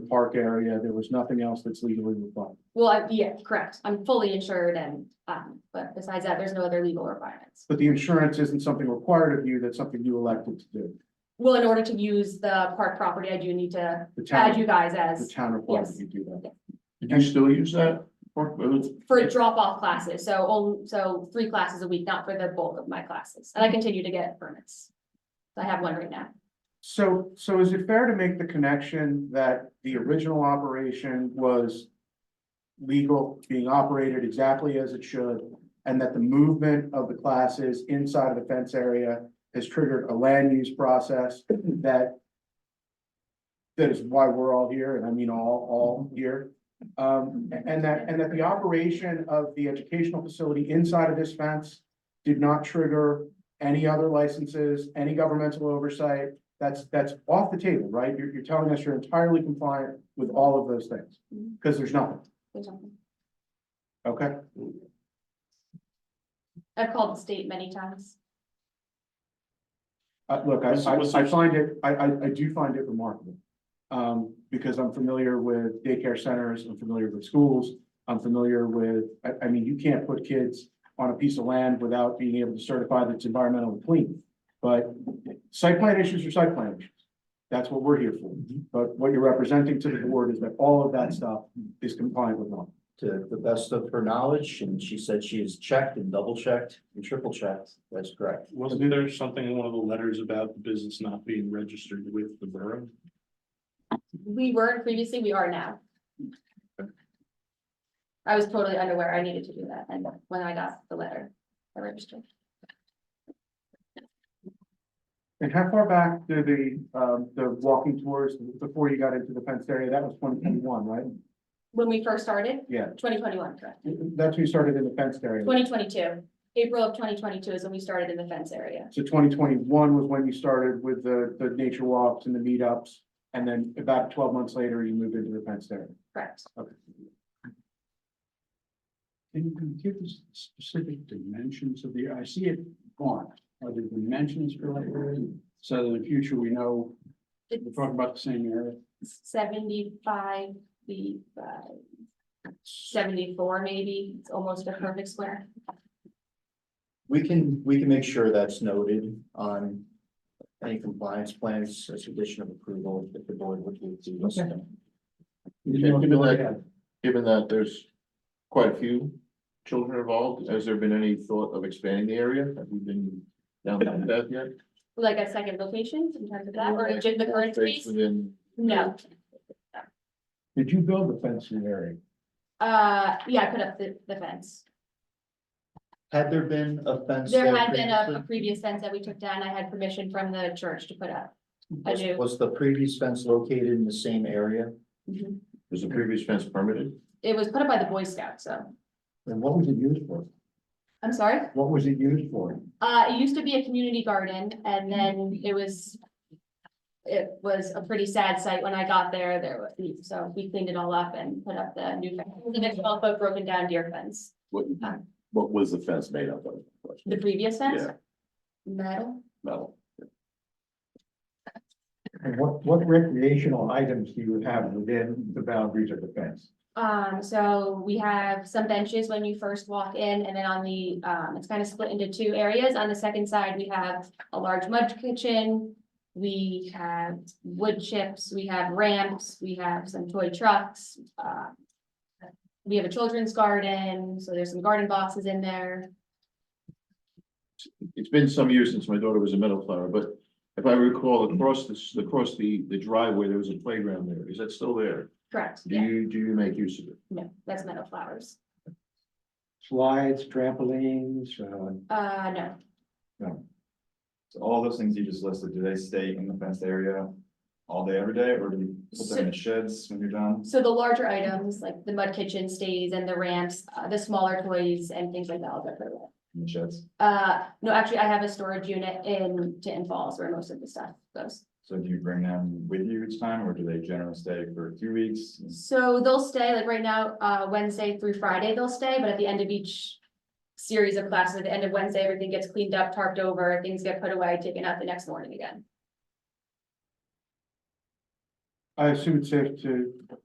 park area, there was nothing else that's legally required. Well, I- yeah, correct. I'm fully insured and, um, but besides that, there's no other legal requirements. But the insurance isn't something required of you, that's something you elected to do. Well, in order to use the park property, I do need to The town, add you guys the as town required that Yes. you do that. Did you still use that? Or- or- for drop off classes. So, on- so three classes a week, not for the bulk of my classes. And I continue to get permits. I have one right now. So, so is it fair to make the connection that the original operation was legal, being operated exactly as it should, and that the movement of the classes inside of the fence area has triggered a land use process that that is why we're all here, and I mean all, all here. Um, and that, and that the operation of the educational facility inside of this fence did not trigger any other licenses, any governmental oversight, that's, that's off the table, right? You're, you're telling us you're entirely compliant with all of those things, Mhm. because there's nothing, There's nothing. okay? I've called the state many times. Uh, look, I, What's- what's I, I the- find it, I, I, I do find it remarkable. Um, because I'm familiar with daycare centers, I'm familiar with schools, I'm familiar with, I, I mean, you can't put kids on a piece of land without being able to certify that it's environmentally clean. But site plan issues are site plan issues. That's what we're here for. But what you're representing to the board is that all of that stuff is compliant with law. to the best of her knowledge, and she said she has checked and double checked and triple checked. That's correct. Wasn't there something in one of the letters about the business not being registered with the borough? We weren't previously, we are now. I was totally unaware I needed to do that, and when I got the letter, I registered. And how far back do the, um, the walking tours before you got into the fenced area? That was twenty twenty-one, right? When we first started, Yeah, twenty twenty-one, correct, that's when you started in the fenced area. twenty twenty-two, April of twenty twenty-two is when we started in the fence area. So twenty twenty-one was when you started with the, the nature walks and the meetups. And then about twelve months later, you moved into the fenced area. Correct. Can you give us specific dimensions of the, I see it gone, are the dimensions for that area? So that in the future we know we're It's talking about the same area. seventy-five, the, seventy-four maybe, it's almost a perfect square. We can, we can make sure that's noted on any compliance plans as condition of approval if the board would do this. Given that there's quite a few children involved, has there been any thought of expanding the area? Have we been down that yet? Like a second location, sometimes of that, or Like, just the current more space space, Within, no, Did you build the fencing area? uh, yeah, I put up the, the fence. Had there been a fence? There there had been a- a, previously? previous fence that we took down. I had permission from the church to put up. I do. Was the previous fence located in the same area? was the previous fence permitted? It was put up by the Boy Scouts, so, And what was it used for? I'm sorry. What was it used for? Uh, it used to be a community garden and then it was. It was a pretty sad sight when I got there. There was, so we cleaned it all up and put up the new fence. The twelve foot broken down deer fence, What, what was the fence made up of? the previous fence. Yeah. Metal, Metal. And what, what recreational items do you have within the boundaries of the fence? um, so we have some benches when you first walk in and then on the, um, it's kind of split into two areas. On the second side, we have a large mud kitchen. We have wood chips, we have ramps, we have some toy trucks, uh. We have a children's garden, so there's some garden boxes in there. It's been some years since my daughter was a middle flower, but if I recall, across this, across the, the driveway, there was a playground there. Is that still there? Correct, Do yeah, you, do you make use of it? no, that's meadow flowers. Slides, trampolines, uh, Uh, no, So all those things you just listed, do they stay in the fenced area all day, every day, or do you put them in the sheds when you're done? so the larger items like the mud kitchen stays and the ramps, uh, the smaller toys and things like that all go for that. In the sheds? Uh, no, actually, I have a storage unit in Tinton Falls where most of the stuff goes. So do you bring them with you each time, or do they generally stay for a few weeks? So they'll stay, like right now, uh, Wednesday through Friday, they'll stay, but at the end of each series of classes, at the end of Wednesday, everything gets cleaned up, tarped over, things get put away, taken out the next morning again. I assume it's safe to